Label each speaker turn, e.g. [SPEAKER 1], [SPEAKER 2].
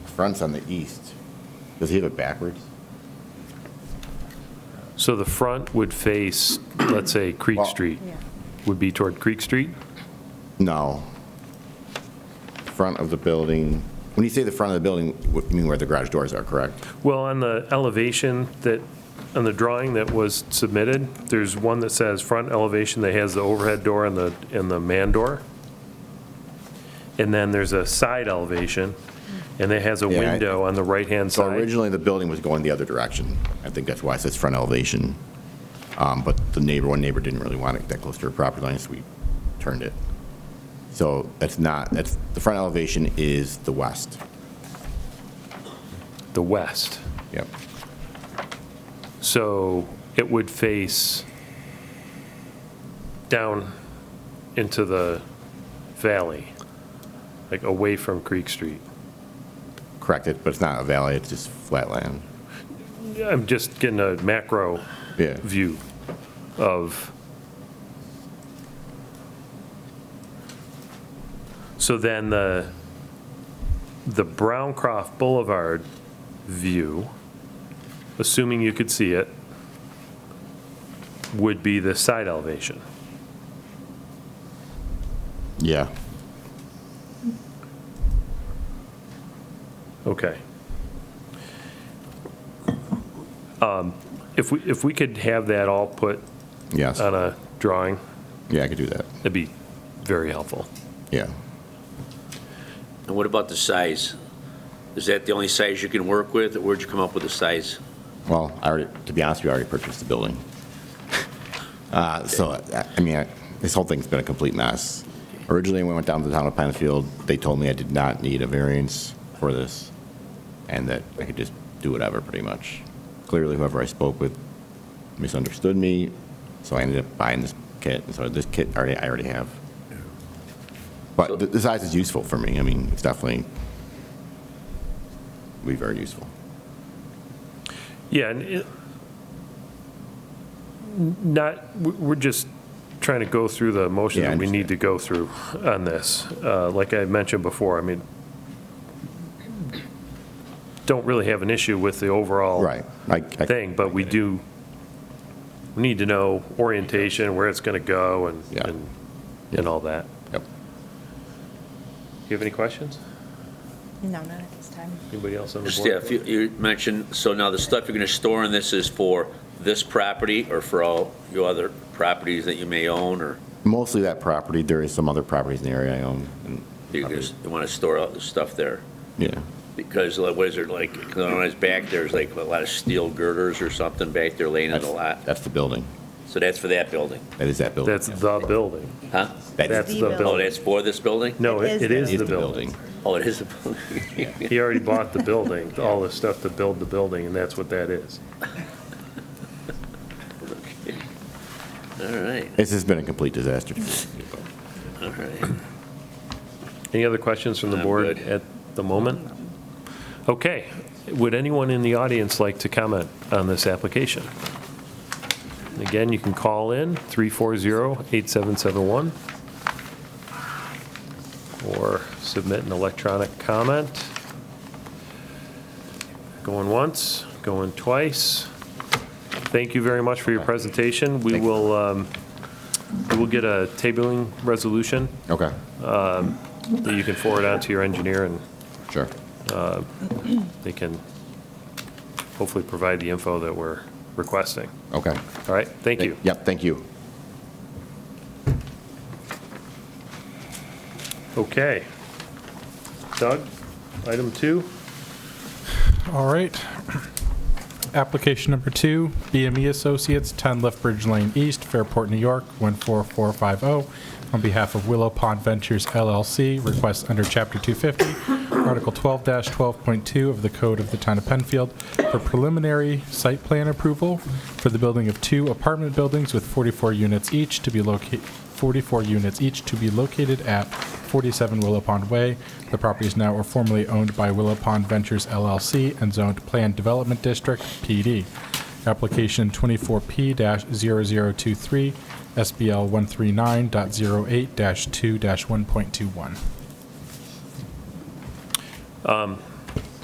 [SPEAKER 1] front's on the east. Does he have it backwards?
[SPEAKER 2] So the front would face, let's say, Creek
[SPEAKER 1] Well-
[SPEAKER 2] Street, would be toward Creek Street?
[SPEAKER 1] No. Front of the building, when you say the front of the building, what- you mean where the garage doors are, correct?
[SPEAKER 2] Well, on the elevation that, on the drawing that was submitted, there's one that says front elevation that has the overhead door and the, and the man door. And then there's a side elevation, and it has a
[SPEAKER 1] Yeah, I-
[SPEAKER 2] window on the right-hand
[SPEAKER 1] So
[SPEAKER 2] side.
[SPEAKER 1] originally, the building was going the other direction. I think that's why it says front elevation. Um, But the neighbor, one neighbor didn't really want it that close to her property line, so we turned it. So that's not, that's, the front elevation is the west.
[SPEAKER 2] The west.
[SPEAKER 1] Yep.
[SPEAKER 2] So it would face down into the valley, like away from Creek Street.
[SPEAKER 1] Correct it, but it's not a valley, it's just flat land.
[SPEAKER 2] I'm just getting a macro
[SPEAKER 1] Yeah.
[SPEAKER 2] view of. So then the, the Browncroft Boulevard view, assuming you could see it, would be the side elevation.
[SPEAKER 1] Yeah.
[SPEAKER 2] Okay. Um, If we, if we could have that all put
[SPEAKER 1] Yes.
[SPEAKER 2] on a drawing,
[SPEAKER 1] Yeah, I could do that.
[SPEAKER 2] that'd be very helpful.
[SPEAKER 1] Yeah.
[SPEAKER 3] And what about the size? Is that the only size you can work with, or where'd you come up with the size?
[SPEAKER 1] Well, I already, to be honest with you, I already purchased the building. Uh, So, I- I mean, I- this whole thing's been a complete mess. Originally, when I went down to the town of Penfield, they told me I did not need a variance for this, and that I could just do whatever, pretty much. Clearly, whoever I spoke with misunderstood me, so I ended up buying this kit, and so this kit already, I already have. But the- the size is useful for me, I mean, it's definitely, be very useful.
[SPEAKER 2] Yeah, and it, not, we- we're just trying to go through the motion
[SPEAKER 1] Yeah, I
[SPEAKER 2] that we need
[SPEAKER 1] understand.
[SPEAKER 2] to go through on this. Uh, Like I mentioned before, I mean, don't really have an issue with the overall
[SPEAKER 1] Right. I- I-
[SPEAKER 2] thing, but we do we need to know orientation, where it's going to go and,
[SPEAKER 1] Yeah.
[SPEAKER 2] and and all that.
[SPEAKER 1] Yep.
[SPEAKER 2] Do you have any questions?
[SPEAKER 4] No, not at this time.
[SPEAKER 2] Anybody else on the
[SPEAKER 3] Just, yeah,
[SPEAKER 2] board?
[SPEAKER 3] if you, you mentioned, so now the stuff you're gonna store in this is for this property, or for all your other properties that you may own, or
[SPEAKER 1] Mostly that property. There is some other properties in the area I own. and-
[SPEAKER 3] you just, you wanna store all the stuff there?
[SPEAKER 1] Yeah.
[SPEAKER 3] Because like, what is it, like, 'cause on his back, there's like a lot of steel girders or something back there laying in the lot,
[SPEAKER 1] That's the building.
[SPEAKER 3] so that's for that building,
[SPEAKER 1] That is that building.
[SPEAKER 2] That's the building.
[SPEAKER 3] huh?
[SPEAKER 1] That is-
[SPEAKER 2] That's the
[SPEAKER 4] The building.
[SPEAKER 3] Oh,
[SPEAKER 2] building.
[SPEAKER 3] that's for this building?
[SPEAKER 2] No, it
[SPEAKER 4] It
[SPEAKER 2] it
[SPEAKER 4] is
[SPEAKER 2] is the building.
[SPEAKER 3] Oh, it is the building.
[SPEAKER 2] He already bought the building, all the stuff to build the building, and that's what that is.
[SPEAKER 3] All right,
[SPEAKER 1] This has been a complete disaster.
[SPEAKER 3] all right.
[SPEAKER 2] Any other questions from the
[SPEAKER 3] I'm
[SPEAKER 2] board
[SPEAKER 3] good.
[SPEAKER 2] at the moment? Okay. Would anyone in the audience like to comment on this application? Again, you can call in 340-8771 or submit an electronic comment. Going once, going twice. Thank you very much for your presentation. We
[SPEAKER 1] Thank you.
[SPEAKER 2] will, um, we will get a tabling resolution
[SPEAKER 1] Okay,
[SPEAKER 2] that you can forward on to your engineer, and
[SPEAKER 1] sure.
[SPEAKER 2] they can hopefully provide the info that we're requesting.
[SPEAKER 1] Okay.
[SPEAKER 2] All right, thank you.
[SPEAKER 1] Yep, thank you.
[SPEAKER 2] Okay. Doug, item two?
[SPEAKER 5] All right. Application number two, BME Associates, 10 Left Bridge Lane East, Fairport, New York, 14450. oh. On behalf of Willow Pond Ventures LLC, requests under Chapter 250, Article 12-12.2 of the Code of the Town of Penfield for preliminary site plan approval for the building of two apartment buildings with 44 units each to be located, 44 units each to be located at 47 Willow Pond Way. The property is now or formerly owned by Willow Pond Ventures LLC and zoned Planned Development District, PD. Application 24P-0023, SBL 139.08-2-1.21.